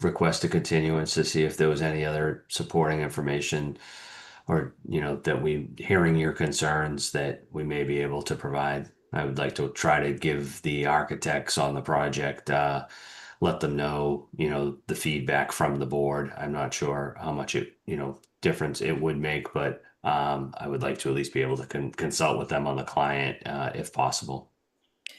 request a continuance to see if there was any other supporting information or, you know, that we, hearing your concerns that we may be able to provide. I would like to try to give the architects on the project, uh, let them know, you know, the feedback from the board. I'm not sure how much it, you know, difference it would make, but um, I would like to at least be able to con- consult with them on the client, uh, if possible.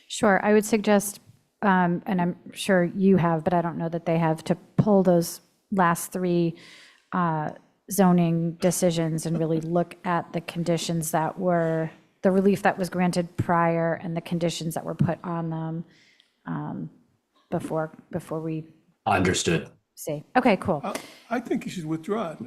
Sure, I would suggest, um, and I'm sure you have, but I don't know that they have, to pull those last three uh, zoning decisions and really look at the conditions that were, the relief that was granted prior and the conditions that were put on them um, before, before we Understood. say, okay, cool. Uh, I think you should withdraw it.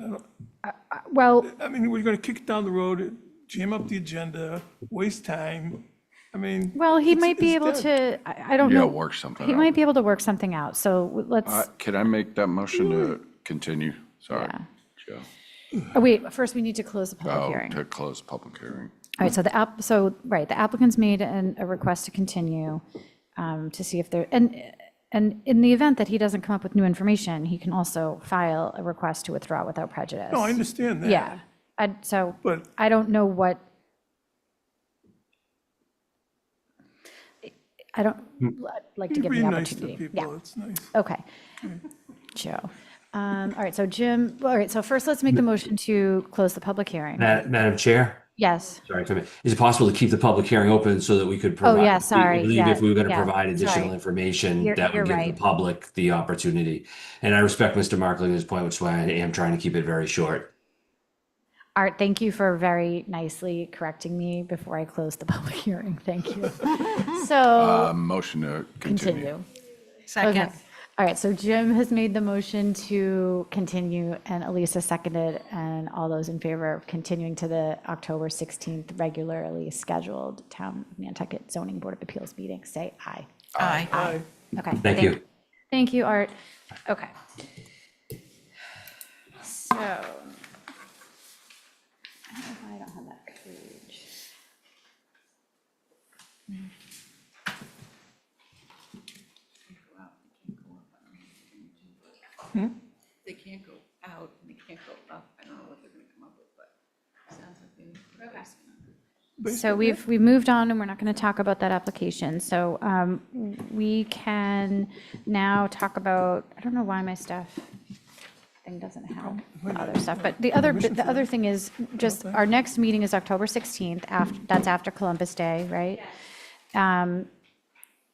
I don't- Well, I mean, we're going to kick it down the road, jam up the agenda, waste time. I mean. well, he it's- might be it's able dead. to, I I don't Yeah, know, work something Mm-hmm. he out. might be able to work something out, so w- Uh, let's, Can I make that motion to continue? Sorry. Joe. oh, wait, first we need to close the public Oh, hearing. to close public hearing. All right, so the app, so, right, the applicant's made an, a request to continue um, to see if there, and, and in the event that he doesn't come up with new information, he can also file a request to withdraw without prejudice. No, I understand that. Yeah, I, so, But- I don't know what. I don't, I'd like to It'd give be him the nice to opportunity. Yeah, people. It's nice. okay. Joe, um, all right, so Jim, all right, so first let's make the motion to close the public hearing. Ma- Madam Chair? Yes, Sorry, come in. Is it possible to keep the public hearing open so that we could Oh, provide? yeah, we- sorry, I believe yeah, If we were going to yeah, provide additional sorry. information, You're- that you're would give the right. public the opportunity. And I respect Mr. Markling's point, which is why I am trying to keep it very short. Art, thank you for very nicely correcting me before I close the public hearing, thank you. So, Uh, Motion to continue. continue. Second. Okay. All right, so Jim has made the motion to continue, and Elisa seconded, and all those in favor of continuing to the October 16th regularly scheduled Town of Nantucket Zoning Board of Appeals meeting, say aye. Aye. Aye. Okay. Thank you. Thank you, Art. Okay. So. I don't know why I don't have that page. They can't go out and they can't go up. I don't know what they're gonna come up with, but it sounds like they. So we've, we moved on, and we're not going to talk about that application. So um, we can now talk about, I don't know why my stuff thing doesn't have the other stuff, but the other, Permission the for other thing is, just, our next meeting is October 16th, after, that's after Columbus Day, right? Um,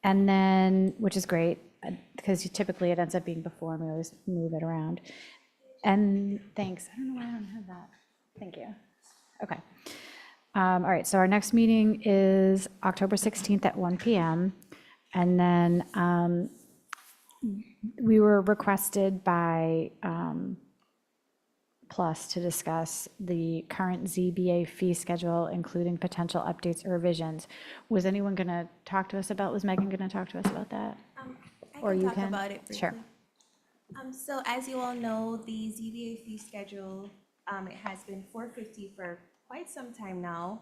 And then, which is great, uh, because you- typically it ends up being before, and we always move it around. And, thanks, I don't know why I don't have that. Thank you. Okay. Um, All right, so our next meeting is October 16th at 1 PM. And then um, we were requested by um, Plus to discuss the current ZBA fee schedule, including potential updates or revisions. Was anyone going to talk to us about, was Megan going to talk to us about that? I Or you talk can? about it briefly. Sure. Um, so as you all know, the ZBA fee schedule, um, it has been four fifty for quite some time now.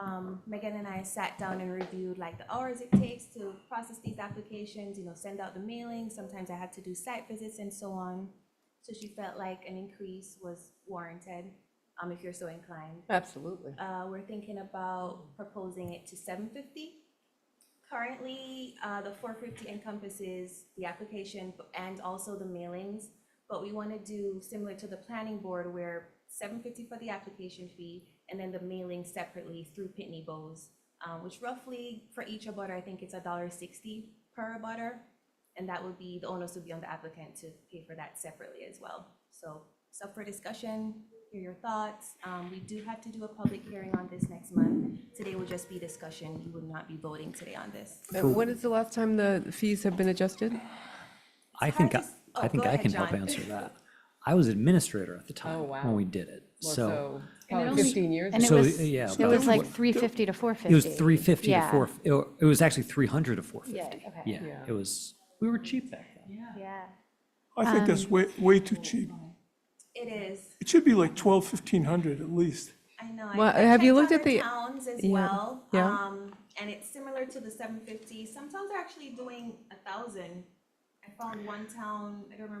Um, Megan and I sat down and reviewed like the hours it takes to process these applications, you know, send out the mailing, sometimes I had to do site visits and so on. So she felt like an increase was warranted, um, if you're so inclined. Absolutely. Uh, we're thinking about proposing it to seven fifty. Currently, uh, the four fifty encompasses the application and also the mailings, but we wanna do similar to the planning board where seven fifty for the application fee and then the mailing separately through Pitney Bowes, uh, which roughly for each abutter, I think it's a dollar sixty per abutter. And that would be, the onus would be on the applicant to pay for that separately as well. So, it's up for discussion, hear your thoughts. Um, we do have to do a public hearing on this next month. Today will just be discussion, you would not be voting today on this. When is the last time the fees have been adjusted? I think, to I s- oh, I think go I ahead, can help John. answer that. I was administrator at the time wow. when we did it, Well, so probably only- 15 years And it So, was, yeah, it was about- like 350 to 450. it was 350 to Yeah. 4, it wa- it was actually 300 to 450. Yeah, okay. Yeah, it was, we were cheap back then. Yeah. I think Um, that's way, way too cheap. It is, It should be like 12, 1500 at least. I know. I- Well, I have you checked looked at other the- Towns as yeah, well. yeah. Um, and it's similar to the seven fifty. Some towns are actually doing a thousand. I found one town, I don't remember